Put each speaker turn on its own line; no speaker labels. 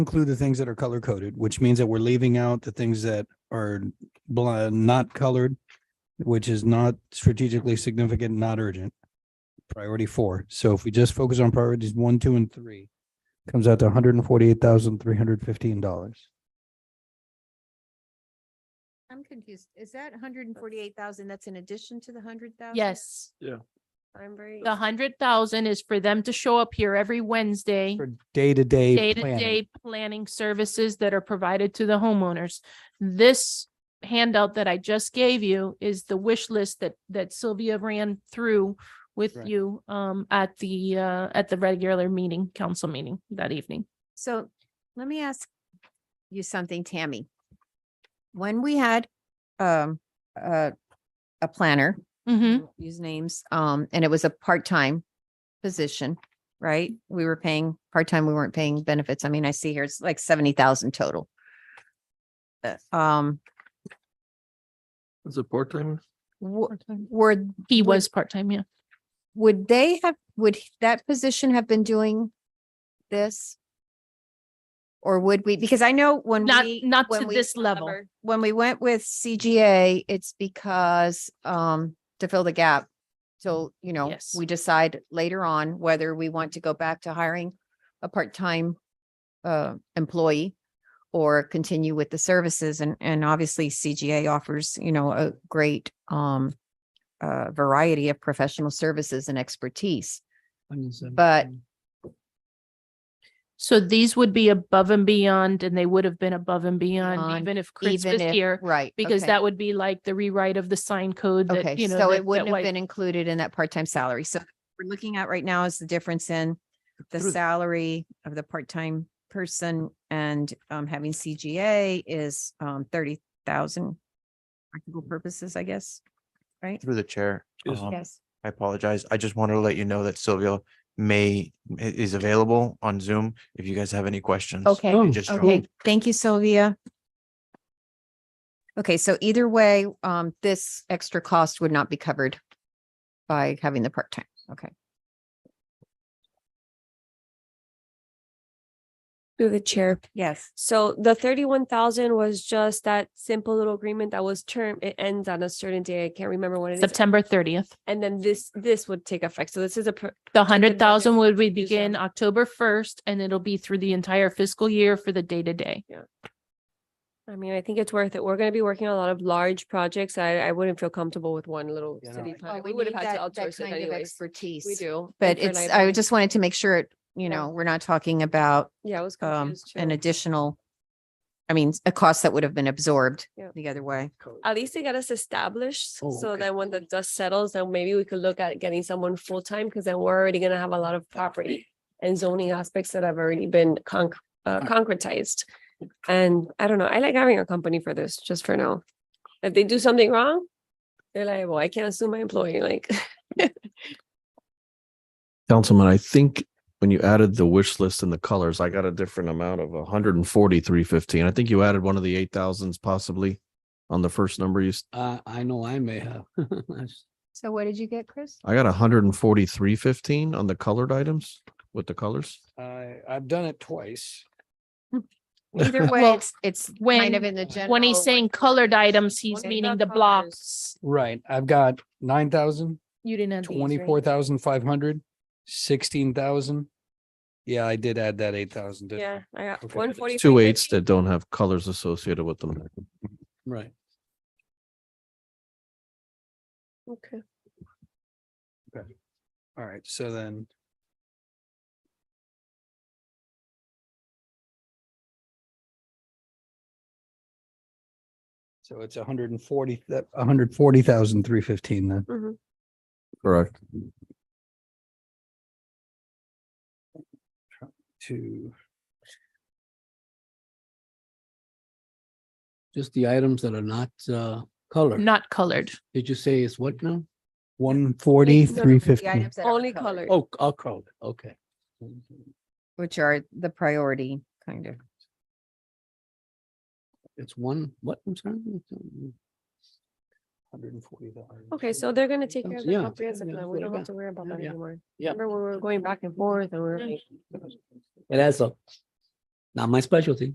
include the things that are color coded, which means that we're leaving out the things that are bl- not colored, which is not strategically significant, not urgent. Priority four. So if we just focus on priorities one, two, and three, comes out to hundred and forty-eight thousand, three hundred fifteen dollars.
I'm confused. Is that hundred and forty-eight thousand? That's in addition to the hundred thousand?
Yes,
I'm very.
the hundred thousand is for them to show up here every Wednesday,
For day-to-day. planning.
day-to-day planning services that are provided to the homeowners. This handout that I just gave you is the wish list that, that Sylvia ran through with
Right.
you, um, at the, uh, at the regular meeting, council meeting that evening.
So let me ask you something, Tammy. When we had um a a planner,
Mm-hmm.
won't use names, um, and it was a part-time position, right? We were paying part-time, we weren't paying benefits. I mean, I see here it's like seventy thousand total. Uh, Um,
Is it part time?
wo- were,
He
Would-
was part-time, yeah.
would they have, would that position have been doing this? Or would we, because I know when
Not,
we.
not
when
to
we-
this level.
When we went with CGA, it's because, um, to fill the gap. So, you know,
Yes.
we decide later on whether we want to go back to hiring a part-time uh, employee or continue with the services and, and obviously CGA offers, you know, a great, um, uh, variety of professional services and expertise. But-
So these would be above and beyond, and they would have been above and beyond,
Beyond,
even if Chris
Even
was
if,
here,
right.
because
okay.
that would be like the rewrite of the sign code that,
Okay,
you know.
so
that-
it wouldn't
that
have
White-
been included in that part-time salary. So what we're looking at right now is the difference in the
Through-
salary of the part-time person and um having CGA is um thirty thousand practical purposes, I guess, right?
Through the chair.
Yes.
um,
Yes.
I apologize. I just wanted to let you know that Sylvia may, i- is available on Zoom if you guys have any questions.
Okay.
You just joined.
Okay, thank you, Sylvia. Okay, so either way, um, this extra cost would not be covered by having the part-time. Okay.
Through the chair.
Yes.
So the thirty-one thousand was just that simple little agreement that was term, it ends on a certain day. I can't remember when it is.
September thirtieth.
And then this, this would take effect. So this is a, per-
The
Take
hundred thousand
another
would we
user.
begin October first, and it'll be through the entire fiscal year for the day-to-day.
I mean, I think it's worth it. We're gonna be working on a lot of large projects. I, I wouldn't feel comfortable with one little
Yeah, no,
city.
I-
Oh,
plan. We would have
need
had to
that- that
outsource it
kind of
anyways.
Expertise.
We do.
But
and for
it's, I
liability.
just wanted to make sure, it- you
Yeah.
know, we're not talking about
Yeah, I was
um
confused.
an
too.
additional. I mean, a cost that would have been absorbed
Yeah.
the other way.
At least they got us established.
Oh,
So
okay.
then when the dust settles, then maybe we could look at getting someone full-time because then we're already gonna have a lot of property and zoning aspects that have already been conc- uh, concretized. And I don't know, I like having a company for this, just for now. If they do something wrong, they're liable. I can't sue my employee, like.
Councilman, I think when you added the wish list and the colors, I got a different amount of a hundred and forty-three fifteen. I think you added one of the eight thousands possibly on the first number you, s-
Uh, I know I may have. That's-
So what did you get, Chris?
I got a hundred and forty-three fifteen on the colored items with the colors.
I, I've done it twice.
Either way,
Well,
it's, it's kind of
When,
in the general.
when he's saying colored items, he's
What
meaning
about
the
colors?
blocks.
Right. I've got nine thousand,
You didn't have these, right?
twenty-four thousand, five hundred, sixteen thousand. Yeah, I did add that eight thousand.
Yeah, I got
Okay.
one forty.
Two eights that don't have colors associated with them.
Right.
Okay.
All right. So then. So it's a hundred and forty, a hundred forty thousand, three fifteen then.
Correct.
to
Just the items that are not, uh, colored.
Not colored.
Did you say it's what now?
one forty, three fifty.
Only color.
Oh, I'll call it. Okay.
Which are the priority kind of.
It's one, what, I'm sorry?
Hundred and forty dollars.
Okay, so they're gonna take care of the
Yeah, yeah,
comprehensive
that's
plan.
what
We
I
don't have
got.
to worry about that
Yeah.
anymore.
Yeah.
Remember when we were going back and forth and we were
Yeah.
like.
It adds up. Not my specialty.